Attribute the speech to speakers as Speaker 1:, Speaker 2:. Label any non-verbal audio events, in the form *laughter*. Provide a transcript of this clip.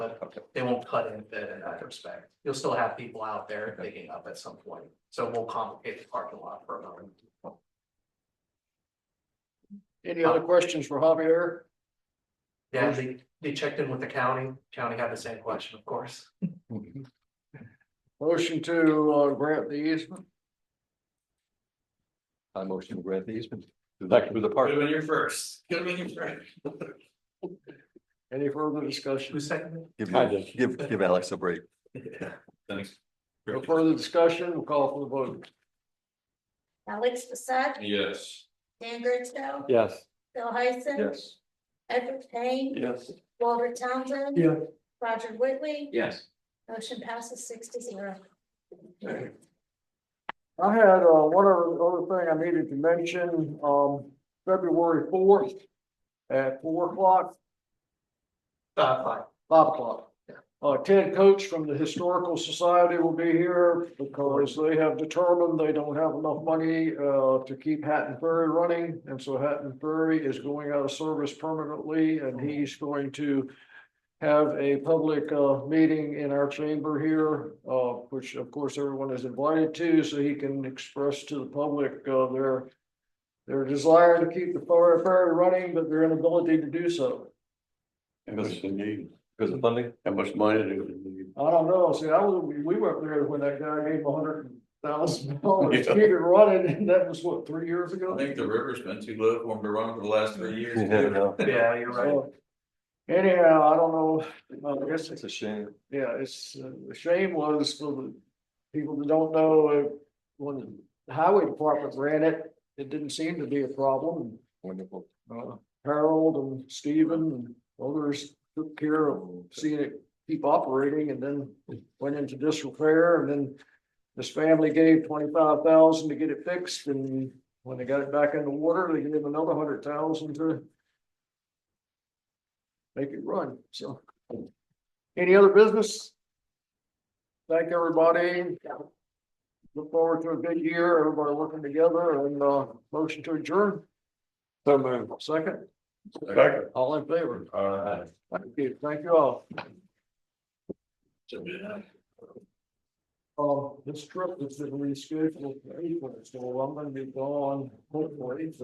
Speaker 1: but they won't cut in fit in that respect. You'll still have people out there digging up at some point, so it won't complicate the parking lot for a moment.
Speaker 2: Any other questions for Javier?
Speaker 1: Yeah, they, they checked in with the county, county had the same question, of course.
Speaker 2: Motion to uh, grant the easement?
Speaker 3: I motion to grant the easement. Back to the park.
Speaker 4: Good when you're first. Good when you're first.
Speaker 2: Any further
Speaker 1: Who
Speaker 2: discussion?
Speaker 1: seconded?
Speaker 3: Give,
Speaker 4: Kind
Speaker 3: you- give, give Alex a break.
Speaker 4: Thanks.
Speaker 2: No further discussion, we'll call for the vote.
Speaker 5: Alex Passat,
Speaker 4: Yes.
Speaker 5: Dan Gertzko,
Speaker 3: Yes.
Speaker 5: Bill Heisen.
Speaker 3: Yes.
Speaker 5: Edward Payne.
Speaker 3: Yes.
Speaker 5: Walter Townsend.
Speaker 1: Yeah.
Speaker 5: Roger Whitley.
Speaker 3: Yes.
Speaker 5: Motion passes six to zero.
Speaker 2: I had uh, one other, other thing I needed to mention, um, February fourth at four o'clock,
Speaker 1: Uh, fine,
Speaker 2: five o'clock. Uh, Ted Coates from the Historical Society will be here because they have determined they don't have enough money uh, to keep Hatton Ferry running. And so Hatton Ferry is going out of service permanently and he's going to have a public uh, meeting in our chamber here, uh, which of course everyone is invited to, so he can express to the public uh, their their desire to keep the ferry ferry running, but their inability to do so.
Speaker 3: Because of funding?
Speaker 6: How much money do we need?
Speaker 2: I don't know, see, I was, we were up there when that guy gave him a hundred thousand dollars, to keep it running, and that was what, three years
Speaker 4: I
Speaker 2: ago?
Speaker 4: think the river's been too low for him to run for the last three years. *laughs*
Speaker 3: *laughs* Yeah,
Speaker 1: yeah, you're right.
Speaker 2: So, Anyhow, I don't know, I guess it's
Speaker 3: It's a shame.
Speaker 2: Yeah, it's, uh, the shame was for the people that don't know, uh, when the highway department ran it, it didn't seem to be a problem.
Speaker 3: Wonderful.
Speaker 2: Uh, Harold and Stephen and others took care of seeing it keep operating and then went into disrepair and then this family gave twenty-five thousand to get it fixed and when they got it back in the water, they gave another hundred thousand to make it run, so. Any other business? Thank everybody. Look forward to a good year, everybody working together and, uh, motion to adjourn. So Second,
Speaker 6: Second.
Speaker 2: all in favor?
Speaker 6: All right.
Speaker 2: Thank you, thank you all. Um, this trip is rescheduled for April, so I'm gonna be gone hopefully